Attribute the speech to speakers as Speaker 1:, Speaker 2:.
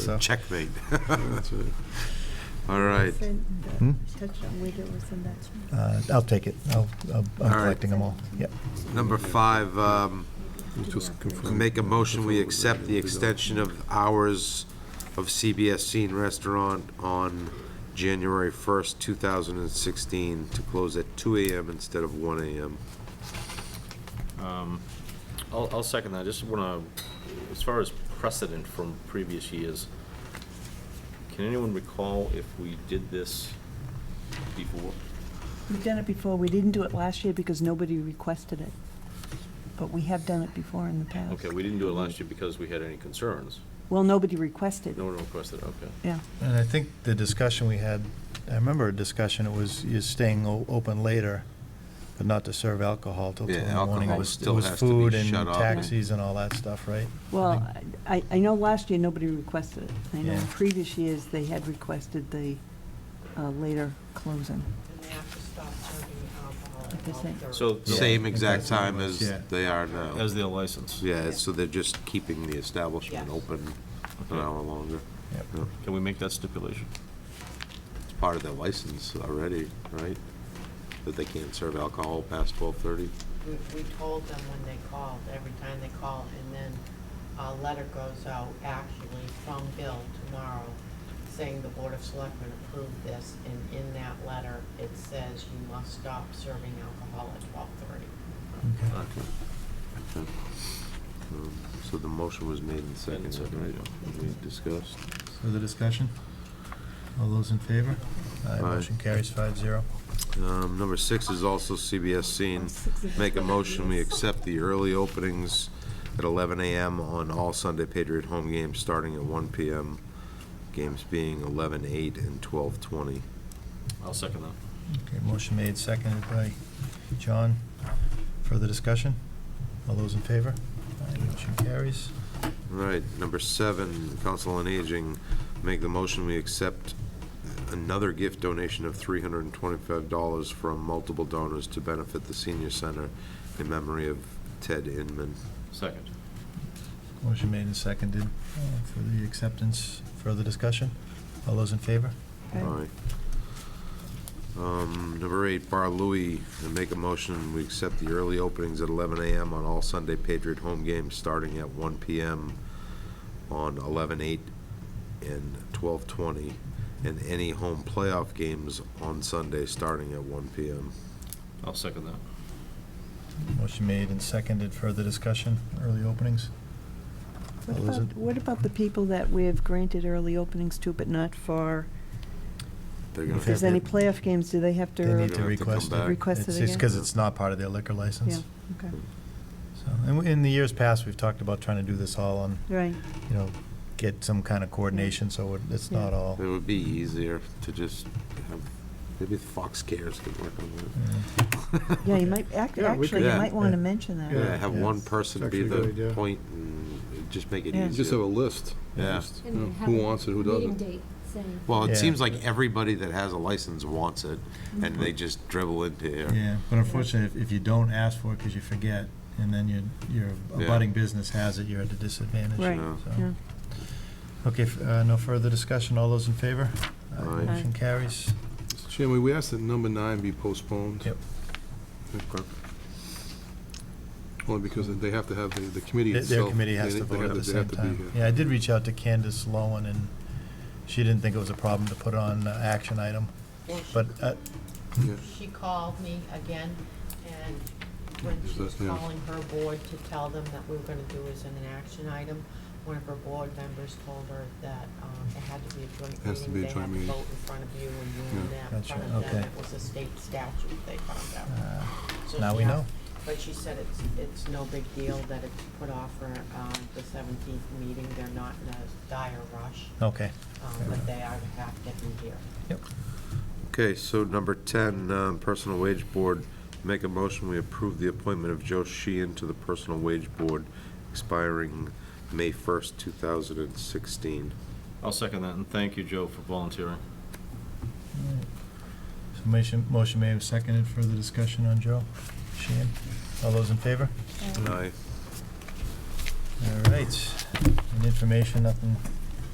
Speaker 1: so.
Speaker 2: Checkmate. All right.
Speaker 1: Hmm? Uh, I'll take it. I'll, I'll- I'm
Speaker 2: All right.
Speaker 1: collecting them all. Yeah.
Speaker 2: Number five, um, make a motion, we accept the extension of hours of CBS Scene Restaurant on January 1st, 2016, to close at 2 AM instead of 1 AM.
Speaker 3: I'll, I'll second that. I just want to, as far as precedent from previous years, can anyone recall if we did this before?
Speaker 4: We've done it before. We didn't do it last year because nobody requested it. But we have done it before in the past.
Speaker 3: Okay, we didn't do it last year because we had any concerns.
Speaker 4: Well, nobody requested.
Speaker 3: No one requested, okay.
Speaker 4: Yeah.
Speaker 1: And I think the discussion we had, I remember a discussion, it was you're staying o- open later, but not to serve alcohol till two in
Speaker 2: Yeah,
Speaker 1: the morning. It
Speaker 2: alcohol
Speaker 1: was-
Speaker 2: still
Speaker 1: It
Speaker 2: has
Speaker 1: was
Speaker 2: to be
Speaker 1: food and
Speaker 2: shut off.
Speaker 1: taxis and all that stuff, right?
Speaker 4: Well, I, I know last year, nobody requested it. I know in
Speaker 1: Yeah.
Speaker 4: previous years, they had requested the uh, later closing.
Speaker 5: And they have to stop serving alcohol
Speaker 4: Like
Speaker 5: at
Speaker 4: I said.
Speaker 5: 12:30.
Speaker 3: So, the-
Speaker 2: Same exact
Speaker 1: Exact same
Speaker 2: time
Speaker 1: as-
Speaker 2: as
Speaker 1: yeah.
Speaker 2: they are now.
Speaker 3: as their license,
Speaker 2: Yeah, so they're just keeping the establishment
Speaker 5: Yes.
Speaker 2: open an
Speaker 3: Okay.
Speaker 2: hour longer.
Speaker 1: Yep.
Speaker 2: Yeah,
Speaker 3: can we make that stipulation?
Speaker 2: It's part of their license already, right? That they can't serve alcohol past 12:30?
Speaker 5: We, we told them when they called, every time they call, and then a letter goes out actually from Bill tomorrow saying the Board of Selectmen approved this, and in that letter, it says you must stop serving alcohol at twelve thirty.
Speaker 2: Okay. Okay. Um, So the motion was made and seconded, right?
Speaker 3: seconded, yeah.
Speaker 2: We discussed.
Speaker 1: Further discussion? All those in favor? Aye, motion carries five zero.
Speaker 2: Um, Number six is also CBS Scene. Make a motion, we accept the early openings at 11 AM on all Sunday Patriot home games, starting at 1 PM. Games being 11-8 and 12-20.
Speaker 3: I'll second that.
Speaker 1: Okay, motion made, seconded by John. Further discussion? All those in favor? Aye, motion carries.
Speaker 2: Right, number seven, Council on Aging, make the motion, we accept another gift donation of three hundred and twenty-five dollars from multiple donors to benefit the senior center in memory of Ted Inman.
Speaker 3: Second.
Speaker 1: Motion made and seconded uh, for the acceptance. Further discussion? All those in favor?
Speaker 4: Aye.
Speaker 2: Aye. Um, number eight, Bar Louie, and make a motion, we accept the early openings at eleven AM on all Sunday Patriot home games, starting at one PM on eleven-eight and twelve-twenty, and any home playoff games on Sunday, starting at one PM.
Speaker 3: I'll second that.
Speaker 1: Motion made and seconded. Further discussion? Early openings?
Speaker 4: What
Speaker 1: All those
Speaker 4: about,
Speaker 1: in-
Speaker 4: what about the people that we have granted early openings to, but not for,
Speaker 2: They're gonna-
Speaker 4: if there's any playoff games, do they have to?
Speaker 1: They need
Speaker 2: They're
Speaker 1: to
Speaker 2: gonna have to come
Speaker 1: request it.
Speaker 2: back.
Speaker 4: Request it
Speaker 1: It's- It's
Speaker 4: again?
Speaker 1: because it's not part of their liquor license.
Speaker 4: Yeah, okay,
Speaker 1: So, and we- in the years past, we've talked about trying to do this all on,
Speaker 4: right.
Speaker 1: you know, get some kind of coordination, so it- it's not
Speaker 4: Yeah.
Speaker 1: all.
Speaker 2: It would be easier to just have, maybe the Fox Cares could work on that.
Speaker 1: Yeah.
Speaker 4: Yeah, you might, act-
Speaker 6: Yeah, we
Speaker 4: actually,
Speaker 2: could-
Speaker 4: you
Speaker 2: Yeah.
Speaker 4: might want
Speaker 1: Yeah.
Speaker 4: to mention that.
Speaker 2: Yeah, have
Speaker 1: yeah.
Speaker 2: one person
Speaker 6: It's
Speaker 2: be
Speaker 6: actually a good
Speaker 2: the
Speaker 6: idea.
Speaker 2: point and just make it
Speaker 4: Yeah.
Speaker 2: easier.
Speaker 6: Just have a list.
Speaker 2: Yeah.
Speaker 6: Just, you
Speaker 7: And
Speaker 6: know,
Speaker 7: then have
Speaker 6: Who
Speaker 7: a
Speaker 6: wants it, who doesn't.
Speaker 7: Meeting date, saying.
Speaker 2: Well,
Speaker 1: Yeah.
Speaker 2: it seems like everybody that has a license wants it, and they just dribble into here.
Speaker 1: Yeah, but unfortunately, if- if you don't ask for it because you forget, and then your, your
Speaker 2: Yeah.
Speaker 1: abutting business has it, you're at a disadvantage.
Speaker 4: Right,
Speaker 2: No.
Speaker 1: so.
Speaker 4: yeah.
Speaker 1: Okay, f- uh, no further discussion. All those in favor? Aye,
Speaker 2: Aye.
Speaker 1: Motion carries.
Speaker 6: Mr. Chairman, we asked that number nine be postponed.
Speaker 1: Yep.
Speaker 6: Okay. Only because they have to have, the the committee
Speaker 1: Their- Their
Speaker 6: itself.
Speaker 1: committee has
Speaker 6: they-
Speaker 1: to
Speaker 6: they
Speaker 1: vote at
Speaker 6: have
Speaker 1: the
Speaker 6: to- they have
Speaker 1: same
Speaker 6: to be
Speaker 1: time.
Speaker 6: here.
Speaker 1: Yeah, I did reach out to Candace Lowen, and she didn't think it was a problem to put on uh, action item,
Speaker 5: Well, she-
Speaker 1: but, uh,
Speaker 6: Yeah.
Speaker 5: She called me again, and when
Speaker 6: Is
Speaker 5: she
Speaker 6: that
Speaker 5: was
Speaker 6: now?
Speaker 5: calling her board to tell them that we were gonna do this in an action item, one of her board members told her that, um, it had to be a joint
Speaker 6: Has to
Speaker 5: meeting,
Speaker 6: be a
Speaker 5: they had
Speaker 6: joint
Speaker 5: to
Speaker 6: meeting.
Speaker 5: vote in front of you, and you and
Speaker 6: Yeah.
Speaker 5: them, in
Speaker 1: That's
Speaker 5: front
Speaker 1: right,
Speaker 5: of them,
Speaker 1: okay.
Speaker 5: it was a state statute, they found out.
Speaker 1: uh,
Speaker 5: So
Speaker 1: now
Speaker 5: she
Speaker 1: we
Speaker 5: had-
Speaker 1: know.
Speaker 5: But she said it's, it's no big deal that it's put off for, um, the seventeenth meeting, they're not in a dire rush,
Speaker 1: Okay.
Speaker 5: um,
Speaker 1: Fair enough.
Speaker 5: but they are, have to be here.
Speaker 2: Okay, so number 10, um, Personal Wage Board, make a motion, we approve the appointment of Joe Sheehan to the Personal Wage Board expiring May 1st, 2016.
Speaker 3: I'll second that, and thank you, Joe, for volunteering.
Speaker 1: So motion, motion may have seconded. Further discussion on Joe Sheehan. All those in favor?
Speaker 7: uh,
Speaker 2: Aye.
Speaker 1: All right. And information, nothing